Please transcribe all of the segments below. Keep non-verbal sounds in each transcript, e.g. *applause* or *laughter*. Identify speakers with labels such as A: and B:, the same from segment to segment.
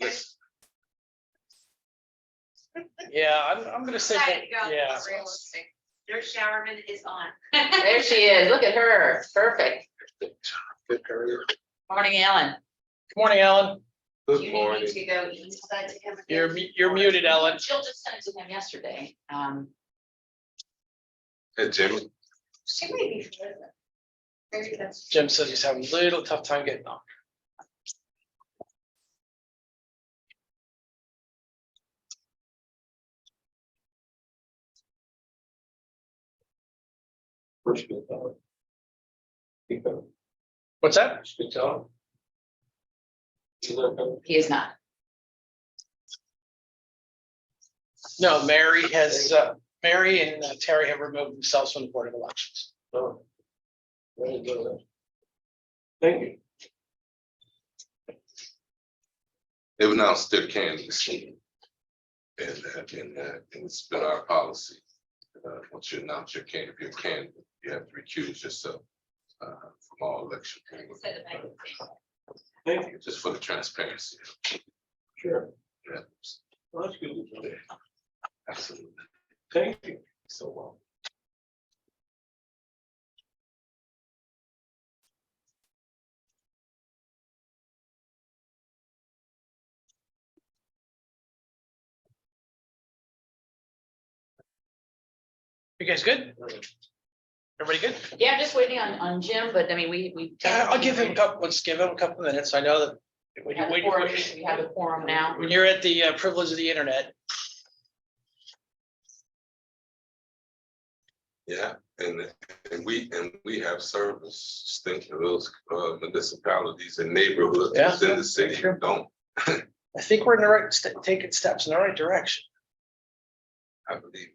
A: This,
B: Yeah, I'm, I'm gonna say,
C: Excited
B: that-
C: about
B: yeah,
C: this realistic. Their showerman is on.
D: There she is. Look at her. Perfect.
A: good area.
D: Morning, Ellen.
B: good morning, Ellen,
C: You
A: Good
C: need
A: morning.
C: to go east side to him.
B: you're, mu- you're muted, Ellen,
D: Jill just sent it to him yesterday. Um,
A: Hey, Jim,
C: She may be. further. Maybe that's-
B: Jim says he's having a little tough time getting on.
E: First good thought. Keep going.
B: What's that?
E: That's good thought. You look up,
D: he is not.
B: No, Mary has, uh, Mary and uh, Terry have removed themselves from the Board of Elections.
E: oh. Very good. Thank you.
A: if not, still candy. And, uh, and, uh, and it's been our policy. Uh, once you announce your can, if you're candidate, you have to recuse yourself, uh, from all election.
C: Said it back.
E: Thank you.
A: Just for the transparency.
E: Sure.
A: Yeah,
E: Well, That's good.
A: Absolutely.
E: Thank you.
A: So, well.
B: You guys good? Everybody good?
D: Yeah, I'm just waiting on, on Jim, but I mean, we, we.
B: Yeah, Uh, I'll give him a couple, let's give him a couple minutes, I know that.
D: We
B: when you-
D: have a
B: when you-
D: quorum, we have a quorum now.
B: When you're at the uh, privilege of the internet,
A: Yeah, and, and we, and we have service, think of those uh, municipalities and neighborhoods
B: Yeah.
A: within the city who don't.
B: I think we're in the right, st- taking steps in the right direction.
A: I believe.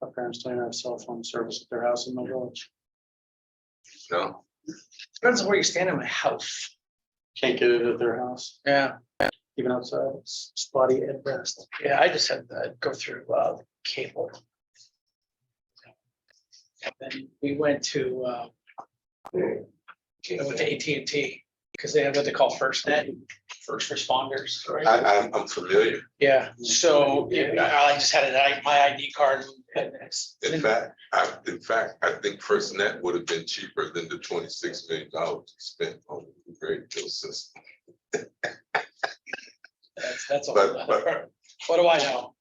B: My parents don't have cell phone service at their house in my village.
A: No,
B: Depends on where you stand in my house.
F: Can't get it at their house,
B: Yeah,
F: even outside, it's spotty at best.
B: yeah, I just had to go through uh, cable. And then we went to, uh, I went to AT&T because they have what they call first net, first responders.
A: I, I'm, I'm familiar.
B: Yeah, so yeah, I I just had it, I- my ID card. and it's-
A: In fact, I, in fact, I think First Net would have been cheaper than the twenty-six million dollars spent on the great bill system.
B: That's, that's all.
A: But- but-
B: *laughs* What do I know?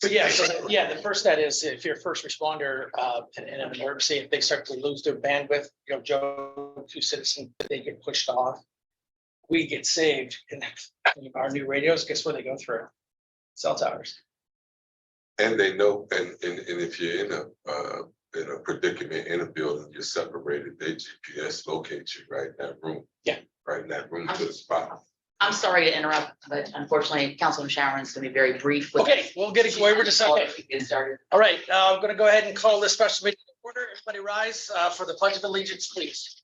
B: But yeah, so, the- yeah, the first net is if you're a first responder, uh, in, in an emergency, if they start to lose their bandwidth, you know, Joe, two citizen, they get pushed off. We get saved and our new radios, guess where they go through? Cell towers.
A: And they know, and, and, and if you're in a, uh, in a predicament in a building, you're separated, they GPS locates you right in that room.
B: Yeah.
A: Right in that room to the spot.
D: I'm sorry to interrupt, but unfortunately, Councilman Sharon's gonna be very brief with.
B: Okay, we'll get it, we're just, okay.
D: We Get started.
B: All right, uh, I'm gonna go ahead and call this special meeting to order. Everybody rise uh, for the pledge of allegiance, please.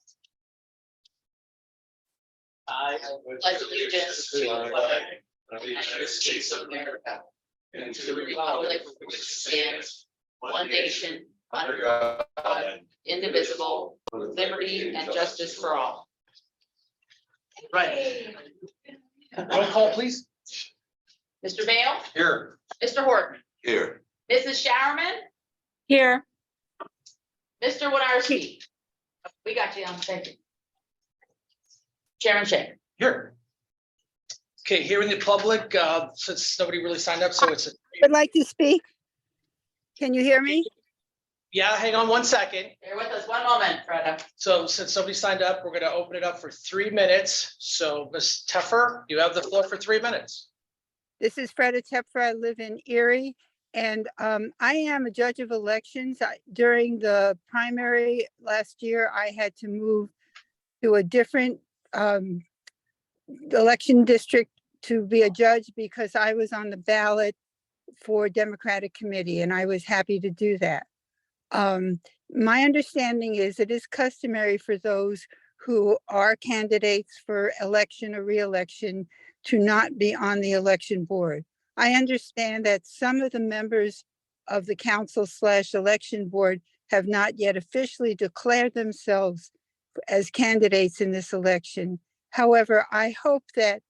B: I
D: Pledge allegiance to the flag of the United States of America and to the republic which stands one nation under God, indivisible, with liberty and justice for all.
B: Right, roll call, please.
D: Mr. Bale,
B: Here.
D: Mr. Horton,
A: Here,
D: Mrs. Showerman,
G: Here,
D: Mr. Winarski. We got you on, thank you. Chairman Shay.
B: Here. Okay, here in the public, uh, since nobody really signed up, so it's,
G: would like to speak. Can you hear me?
B: yeah, hang on one second.
D: Bear with us one moment, Freda.
B: So since somebody signed up, we're gonna open it up for three minutes. So Ms. Teffer, you have the floor for three minutes.
G: This is Freda Tepfer. I live in Erie. And um, I am a judge of elections. I- During the primary last year, I had to move to a different um, election district to be a judge because I was on the ballot for Democratic Committee, and I was happy to do that. Um, My understanding is it is customary for those who are candidates for election or reelection to not be on the election board. I understand that some of the members of the council slash election board have not yet officially declared themselves as candidates in this election. However, I hope that